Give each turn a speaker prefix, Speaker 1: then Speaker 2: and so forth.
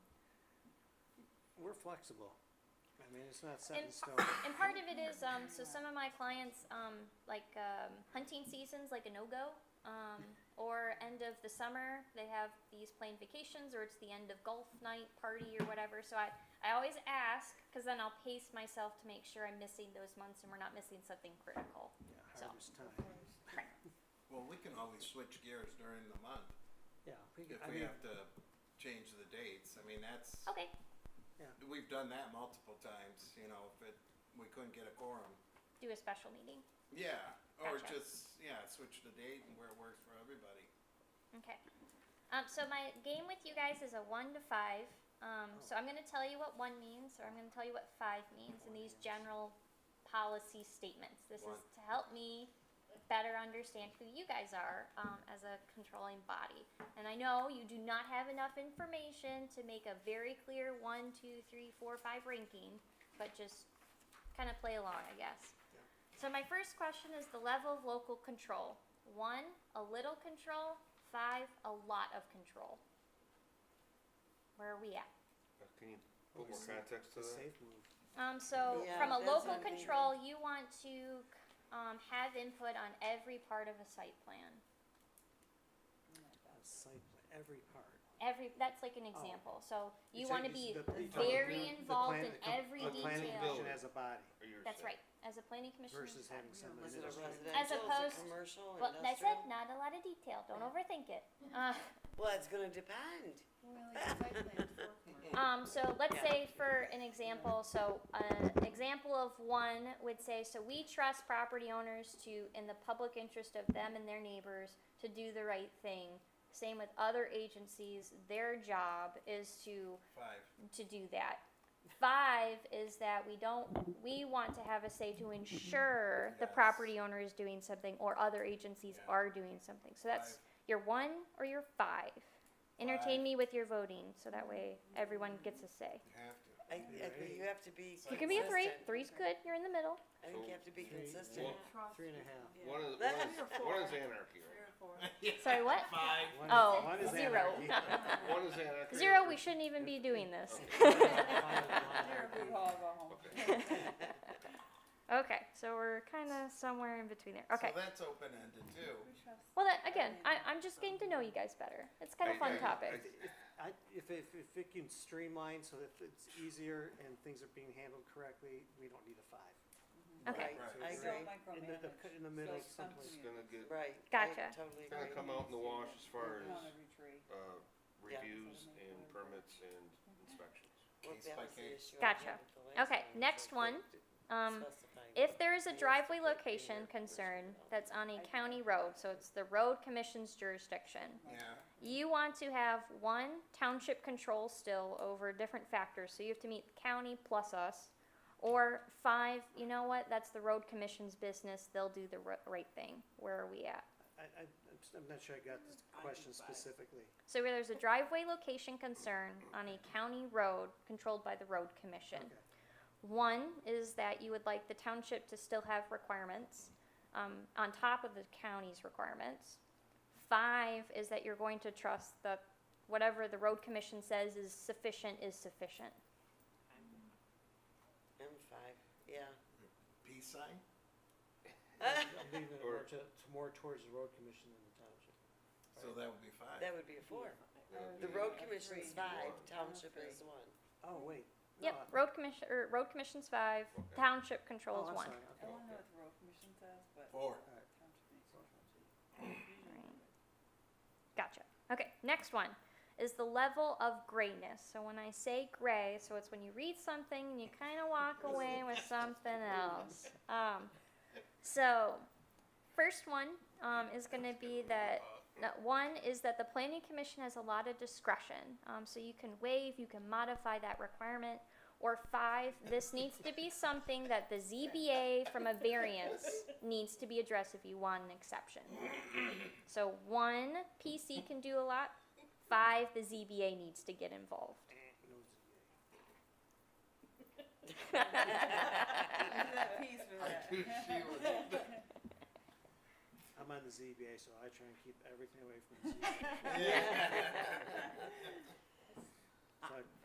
Speaker 1: we're flexible. I mean, it's not set
Speaker 2: And
Speaker 1: in
Speaker 2: pa-
Speaker 1: stone.
Speaker 2: And part of it is, um, so some of my clients, um, like, um, hunting seasons, like a no-go, um, or end of the summer, they have these planned vacations, or it's the end of golf night party or whatever, so I, I always ask, cause then I'll pace myself to make sure I'm missing those months and we're not missing something critical.
Speaker 1: Yeah,
Speaker 2: so-
Speaker 1: harvest time.
Speaker 3: Well, we can always switch gears during the month
Speaker 1: Yeah, we could, I
Speaker 3: if
Speaker 1: mean,
Speaker 3: we have to change the dates. I mean, that's,
Speaker 2: Okay,
Speaker 3: we've done that multiple times, you know, if it, we couldn't get a quorum.
Speaker 2: do a special meeting,
Speaker 3: Yeah, or
Speaker 2: Gotcha.
Speaker 3: just, yeah, switch the date and where it works for everybody.
Speaker 2: okay. Um, so my game with you guys is a one to five, um, so I'm gonna tell you what one means, or I'm gonna tell you what five means in these general policy statements. This is
Speaker 3: One.
Speaker 2: to help me better understand who you guys are um, as a controlling body. And I know you do not have enough information to make a very clear one, two, three, four, five ranking, but just kind of play along, I guess. So my first question is the level of local control. One, a little control. Five, a lot of control. Where are we at?
Speaker 4: Uh, Can you
Speaker 1: Oh,
Speaker 4: put more
Speaker 1: it's a-
Speaker 4: context to
Speaker 1: it's a
Speaker 4: that?
Speaker 1: safe move.
Speaker 2: Um, so
Speaker 5: Yeah,
Speaker 2: from a
Speaker 5: that's
Speaker 2: local
Speaker 5: what I'm
Speaker 2: control, you want to um, have input on every part of a site plan.
Speaker 1: A uh, site plan, every part.
Speaker 2: Every that's like an example. So you
Speaker 1: said
Speaker 2: want to
Speaker 1: s-
Speaker 2: be
Speaker 1: Oh. the- you talked
Speaker 2: very
Speaker 1: about the
Speaker 2: involved
Speaker 1: plan-
Speaker 2: in
Speaker 1: the com-
Speaker 2: every
Speaker 1: The planning
Speaker 2: detail.
Speaker 1: commission as a body
Speaker 4: Or you're
Speaker 2: that's
Speaker 4: saying-
Speaker 2: right. As a planning commissioner,
Speaker 1: versus having some
Speaker 5: Is it a
Speaker 1: administrative.
Speaker 2: As
Speaker 5: residential, is
Speaker 2: opposed-
Speaker 5: it commercial, industrial?
Speaker 2: well, that's it. Not a lot of detail. Don't overthink it. Uh,
Speaker 5: Well, it's gonna depend.
Speaker 6: Well, it's site plan for commercial.
Speaker 2: Um, so let's
Speaker 5: Yeah.
Speaker 2: say for an example, so an example of one would say, so we trust property owners to, in the public interest of them and their neighbors, to do the right thing. Same with other agencies, their job is to
Speaker 3: Five.
Speaker 2: to do that. Five is that we don't, we want to have a say to ensure the
Speaker 3: Mm-hmm. Yes.
Speaker 2: property owner is doing something or other agencies
Speaker 3: Yeah.
Speaker 2: are doing something. So that's
Speaker 3: Five.
Speaker 2: your one or your five.
Speaker 3: Five.
Speaker 2: Entertain me with your voting, so that way everyone gets a say.
Speaker 3: You have to.
Speaker 5: I, I think you have to be
Speaker 3: You
Speaker 2: You
Speaker 5: consistent.
Speaker 2: can be a three, three's good, you're in the middle.
Speaker 5: I think you have to be
Speaker 1: Three.
Speaker 5: consistent.
Speaker 1: Three and a half.
Speaker 4: One is,
Speaker 5: That-
Speaker 4: one is, one is anarchy,
Speaker 6: Three or four.
Speaker 2: Sorry, what?
Speaker 3: Five.
Speaker 1: One is-
Speaker 2: Oh,
Speaker 1: one is
Speaker 2: zero.
Speaker 1: anarchy.
Speaker 4: right? One is anarchy.
Speaker 2: Zero, we shouldn't even be doing this.
Speaker 1: One is anarchy.
Speaker 4: Okay.
Speaker 2: Okay, so we're kinda somewhere in between there, okay.
Speaker 3: So that's open-ended too.
Speaker 2: Well, that, again, I, I'm just getting to know you guys better. It's kinda
Speaker 4: I-
Speaker 2: a fun
Speaker 4: I-
Speaker 2: topic.
Speaker 1: I, if, if, if it can streamline so that it's easier and things are being handled correctly, we don't need a five.
Speaker 2: Okay.
Speaker 3: Right.
Speaker 5: I
Speaker 1: It's
Speaker 5: agree,
Speaker 1: right In the, the, in the middle
Speaker 7: so some-
Speaker 1: someplace.
Speaker 4: It's gonna get, uh,
Speaker 5: right. I
Speaker 2: Gotcha.
Speaker 5: Totally agree.
Speaker 4: gonna come out in the wash as far
Speaker 7: On
Speaker 4: as,
Speaker 7: every tree.
Speaker 4: uh,
Speaker 5: Yeah.
Speaker 4: reviews and permits and inspections.
Speaker 5: Well,
Speaker 3: Case
Speaker 5: that
Speaker 3: by
Speaker 5: was the
Speaker 3: case.
Speaker 5: issue I had
Speaker 2: Gotcha.
Speaker 5: with the last
Speaker 2: Okay,
Speaker 5: one,
Speaker 2: next
Speaker 5: so
Speaker 2: one,
Speaker 5: that-
Speaker 2: Um,
Speaker 5: specifying
Speaker 2: If
Speaker 5: what
Speaker 2: there is a
Speaker 5: needs to
Speaker 2: driveway
Speaker 5: be in
Speaker 2: location
Speaker 5: there versus
Speaker 2: concern
Speaker 5: what else.
Speaker 2: that's on a county road, so it's the road commission's jurisdiction,
Speaker 3: Yeah,
Speaker 2: you want to have one township control still over different factors, so you have to meet county plus us. Or five, you know what, that's the road commission's business, they'll do the ri- right thing, where are we at?
Speaker 1: I, I, I'm s- I'm not sure I got this question specifically.
Speaker 2: So where there's a driveway location concern on a county road controlled by the road commission.
Speaker 1: Okay.
Speaker 2: One is that you would like the township to still have requirements um, on top of the county's requirements. Five is that you're going to trust that whatever the road commission says is sufficient is sufficient.
Speaker 5: M five, yeah.
Speaker 3: peace sign?
Speaker 1: I'm leaving it more
Speaker 4: Or-
Speaker 1: to, to more towards the road commission than the township.
Speaker 3: So that would be five.
Speaker 5: That would be a four.
Speaker 4: That would
Speaker 5: The
Speaker 4: be-
Speaker 5: road commission's
Speaker 7: Three.
Speaker 5: five,
Speaker 4: One.
Speaker 5: township is one.
Speaker 1: Oh, wait. no,
Speaker 2: Yep,
Speaker 1: I-
Speaker 2: road commission, or road commission's five,
Speaker 4: Okay.
Speaker 1: Oh,
Speaker 2: township controls
Speaker 1: I'm
Speaker 2: one.
Speaker 1: sorry,
Speaker 7: I
Speaker 1: okay.
Speaker 7: don't know what the road commission says, but.
Speaker 3: Four.
Speaker 2: Right. Gotcha. Okay, next one is the level of grayness. So when I say gray, so it's when you read something and you kind of walk away with something else. Um, so, first one um, is going to be that that one is that the planning commission has a lot of discretion. Um, so you can waive, you can modify that requirement. Or five, this needs to be something that the ZBA from a variance needs to be addressed if you want an exception. So one PC can do a lot. Five, the ZBA needs to get involved.
Speaker 1: No,
Speaker 7: That piece with
Speaker 3: I
Speaker 7: that.
Speaker 3: knew she was-
Speaker 1: I'm on the ZBA, so I try and keep everything away from the ZBA.
Speaker 3: Yeah.
Speaker 1: So I-